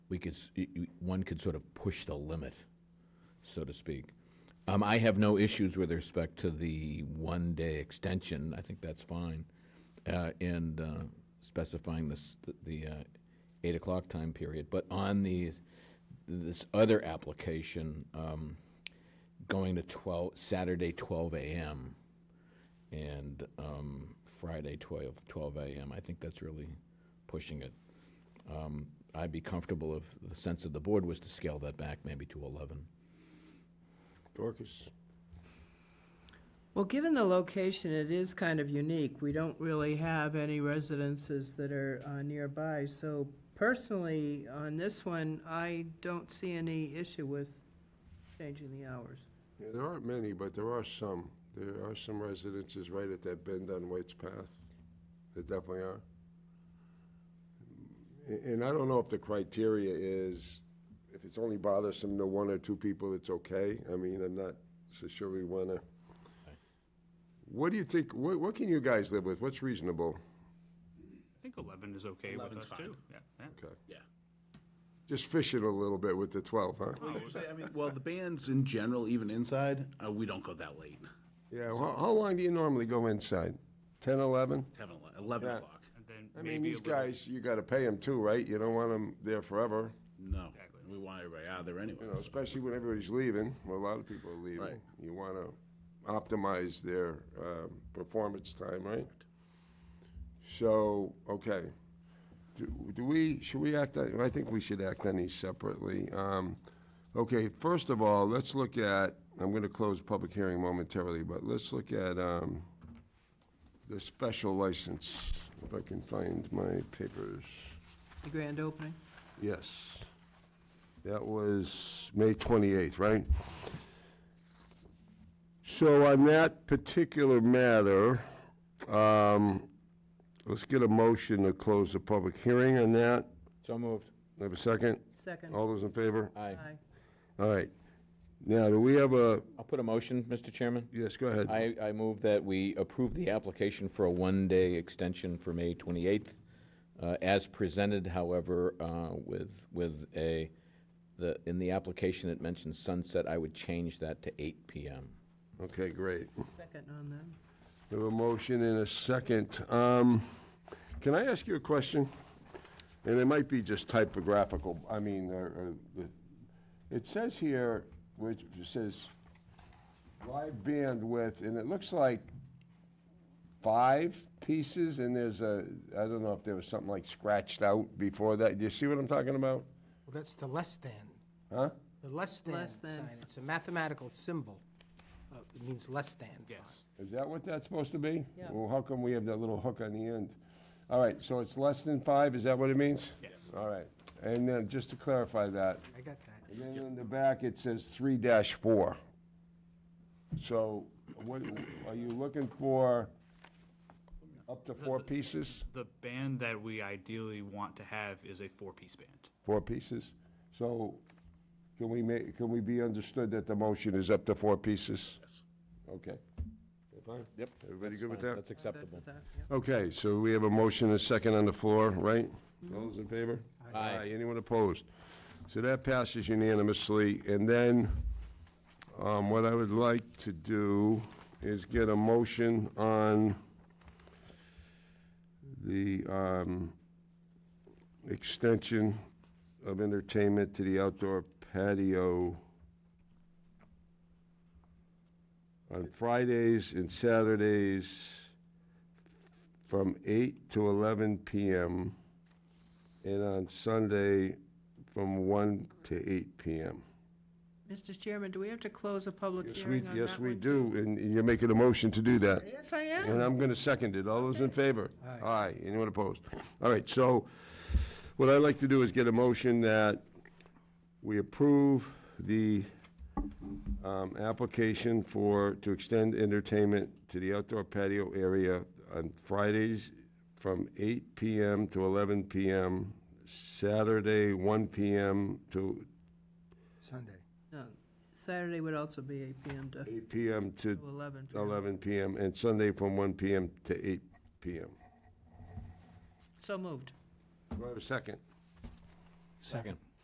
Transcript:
we could, s- y- y- one could sort of push the limit, so to speak. Um, I have no issues with respect to the one-day extension. I think that's fine. Uh, and, uh, specifying this, the, uh, eight o'clock time period. But on these, this other application, um, going to twelve, Saturday twelve AM and, um, Friday twelve, twelve AM, I think that's really pushing it. Um, I'd be comfortable if the sense of the board was to scale that back maybe to eleven. Dorcas? Well, given the location, it is kind of unique. We don't really have any residences that are uh, nearby. So personally, on this one, I don't see any issue with changing the hours. Yeah, there aren't many, but there are some. There are some residences right at that bend on White's Path. There definitely are. A- And I don't know if the criteria is, if it's only bothersome to one or two people, it's okay. I mean, I'm not so sure we want to. What do you think, what, what can you guys live with? What's reasonable? I think 11 is okay with 11's us, fine. too. Yeah, yeah. Okay. Yeah. Just fishing a little bit with the 12, huh? Well, actually, I mean, well, the bands in general, even inside, uh, we don't go that late. Yeah, how, how long do you normally go inside? 10, 11? 10, 11, 11 Yeah. o'clock. And then I mean, maybe a these little- guys, you got to pay them too, right? You don't want them there forever, No, Exactly. we want everybody out of there anyway. you know, so- especially when everybody's leaving. Well, a lot of people are leaving. Right. You want to optimize their um, performance time, right? So, okay. Do, do we, should we act, on- I think we should act on these separately. Um, Okay, first of all, let's look at, I'm going to close public hearing momentarily, but let's look at um, the special license, if I can find my papers. The grand opening? Yes. That was May 28th, right? So on that particular matter, um, let's get a motion to close the public hearing on that. So moved. Have a second? Second? All those in favor? Aye. Aye. All right. Now, do we have a, I'll put a motion, Mr. Chairman. yes, go ahead. I, I move that we approve the application for a one-day extension for May 28th, uh, as presented, however, uh, with, with a, the, in the application it mentions sunset, I would change that to 8 PM. Okay, great. Second on that. We have a motion and a second. Um, Can I ask you a question? And it might be just typographical, I mean, or, or the- it says here, which says live bandwidth, and it looks like five pieces, and there's a, I don't know if there was something like scratched out before that. Do you see what I'm talking about? Well, that's the less than, Huh? the less than Less than. sign. It's a mathematical symbol. Uh, It means less than. fine. Yes. Is that what that's supposed to be? Yeah. Well, how come we have that little hook on the end? All right, so it's less than five, is that what it means? Yes. All right, and then, just to clarify that, I got that. and then in the back, it says three dash four. So, what, are you looking for up to four pieces? The band that we ideally want to have is a four-piece band. Four pieces? So, can we make, can we be understood that the motion is up to four pieces? Yes. Okay. Fine? Yep. Everybody that's good with fine. that? That's acceptable. Good with that, yeah. Okay, so we have a motion and a second on the floor, right? All those in favor? Mm-hmm. Aye. Aye. Anyone opposed? So that passes unanimously, and then, um, what I would like to do is get a motion on the, um, extension of entertainment to the outdoor patio on Fridays and Saturdays from 8 to 11 p.m. and on Sunday from 1 to 8 p.m. Mr. Chairman, do we have to close a public Yes, we, hearing on that yes, we one? do, and you're making a motion to do that. Yes, I am. And I'm going to second it. All those in favor? Aye. Anyone opposed? All right, so what I'd like to do is get a motion that we approve the um, application for, to extend entertainment to the outdoor patio area on Fridays from 8 PM to 11 PM, Saturday 1 PM to Sunday. No, Saturday would also be eight PM to 8 PM to 11. 11 PM, and Sunday from 1 PM to 8 PM. So moved. Do I have a second? Second.